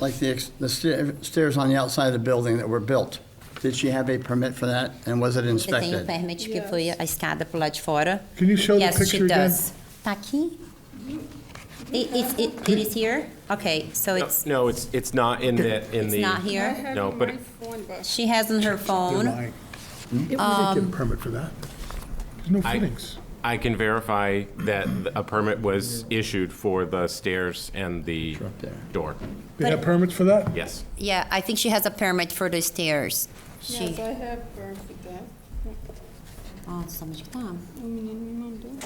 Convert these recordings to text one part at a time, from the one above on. like the, ex- the stair- stairs on the outside of the building that were built? Did she have a permit for that, and was it Você tem o inspected? permit que foi a escada pro lado de fora. Can you show the Yes, she picture again? does. Tá aqui? It, it, it- it is here? Okay, so No, it's, No, it's, it's not in the, in it's the. not here? No, but- She has on her phone. It not get a permit for that. There's no I- footings. I can verify that a permit was issued for the stairs and the door. They have permits for that? Yes. Yeah, I think she has a permit for the stairs. She, Yes, I have perfect né? that. nossa, onde que tá? O menino me mandou.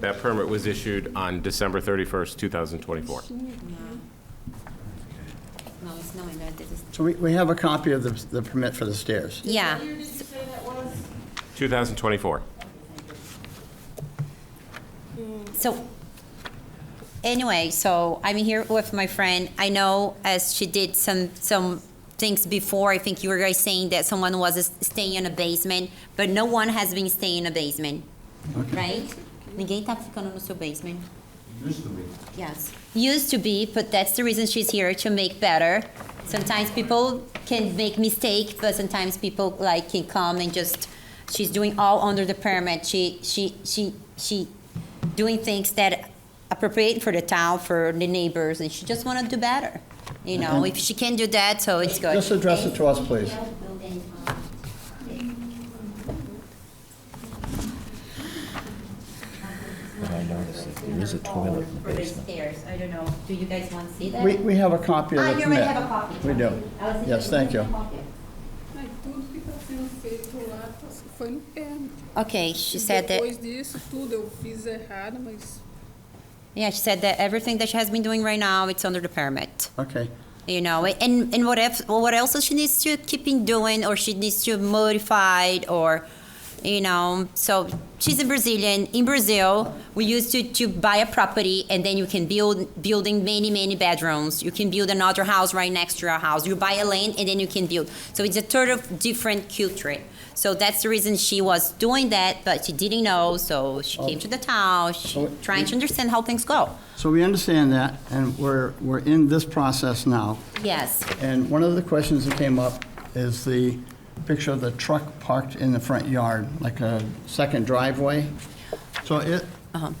That permit was issued on December 31st, 2024. Não, isso não é, né? This is- So we, we have a copy of the, the permit for the stairs. Yeah, 2024. so, anyway, so I'm here with my friend. I know as she did some, some things before, I think you were guys saying that someone was staying in a basement, but no one has been staying in a basement, right? Ninguém tá ficando no seu basement. Yes. Used to be, but that's the reason she's here to make better. Sometimes people can make mistake, but sometimes people like can come and just she's doing all under the permit. She she she she doing things that appropriate for the town, for the neighbors, and she just wanna do better. You know, if she can do that, so it's good. Just address it to us, please. I noticed that there is a toilet in the For the basement. stairs, I don't know. Do you guys want to see that? We, we have a copy of the Ah, you permit. already have a copy. We do. I was thinking Yes, thank you. copy. Mas tudo que está sendo feito lá tá- foi no perno. Okay, she said that. Depois disso, tudo eu fiz errado, mas Yeah, she said that everything that she has been doing right now, it's under the permit. Okay. You know, and and what if what else she needs to keep in doing, or she needs to modify, or you know. So she's a Brazilian. In Brazil, we used to to buy a property, and then you can build building many many bedrooms. You can build another house right next to your house. You buy a land, and then you can build. So it's a sort of different culture. So that's the reason she was doing that, but she didn't know. So she came to the town, she Oh, trying to understand how things go. So we understand that, and we're, we're in this process now. Yes. And one of the questions that came up is the picture of the truck parked in the front yard, like a second driveway. So it,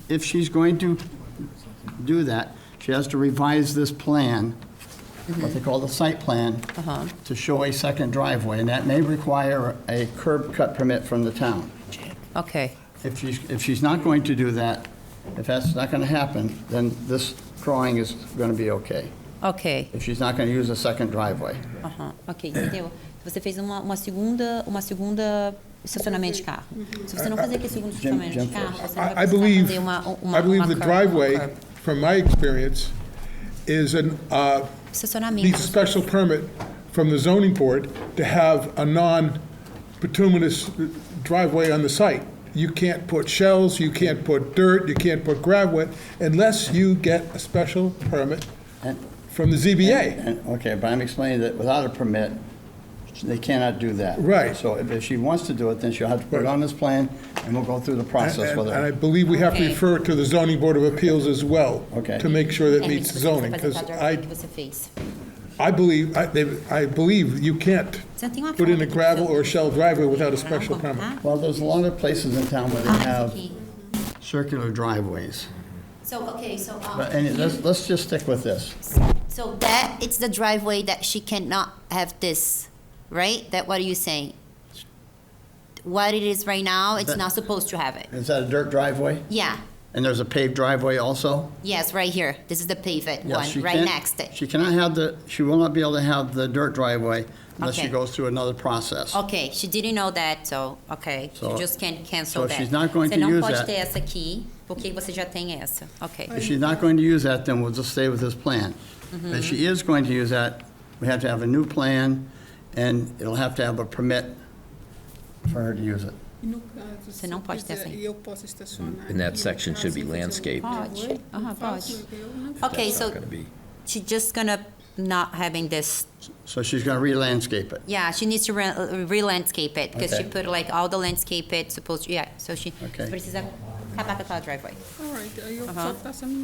if she's going to do that, she has to revise this plan, what they call the site plan, to show a second driveway, and that may require a curb cut permit from the town. Okay. If she's, if she's not going to do that, if that's not going to happen, then this drawing is going to be okay, Ok. if she's not going to use a second driveway. Aham, ok, entendeu? Você fez uma, uma segunda, uma segunda estacionamento de carro. Se você não fazer aquele segundo Jim- estacionamento de Jim carro, first. você não vai I, I precisar believe, fazer uma, uma, I believe uma the curva, uma driveway, curva. from my experience, is an, uh, needs a Estacionamento. special permit from the zoning board to have a non-bituminous driveway on the site. You can't put shells, you can't put dirt, you can't put gravel, unless you get a special permit from the ZBA. And- Okay, but I'm explaining that without a permit, they cannot do that. Right. So if if she wants to do it, then she'll have to put it on this plan, and we'll go through the And process with and I her. believe we have to Okay. refer it to the zoning board of appeals as well. Okay. To make sure that É, meets você precisa zoning, because fazer a driveway I, que você fez. I believe, I, they- I believe you can't Você tem uma put in foto a do gravel seu- or shell driveway without a Não, special como permit. tá? Well, there's a lot of places in town where they Ah, esse have aqui. circular driveways. So, okay, so, um, But, and let's, let's just stick with this. so that, it's the driveway that she cannot have this, right? That what are you saying? What it is right now, it's That- not supposed to have it. Is that a dirt driveway? Yeah, And there's a paved driveway also? yes, right here. This is the paved Yes, one, she right can't- next. She cannot have the, she will not be able to have the dirt driveway unless she Okay. goes through another process. Ok, she didn't know that, so, ok, So- you just can't cancel so that. she's not going você to não use pode that. ter essa aqui, porque você já tem essa, ok. If she's not going to use that, then we'll just stay with this plan. If she is going to use that, we have to have a new plan, and it'll have to have a permit for her to use it. e no caso, se não eu pode ter quiser, assim. e eu posso estacionar. And that aqui, section no should caso, be eu fazer um landscaped. Pode, driveway, aham, não faço, pode. eu não Ok, That's not so, gonna be- she's just gonna not having this, So she's going to re-landscape it. yeah, she needs to re- re-landscape it, because she Okay. put like all the landscape it supposed, yeah, so she Okay. precisa acabar com aquela driveway. All right, aí eu Aham. só faço a minha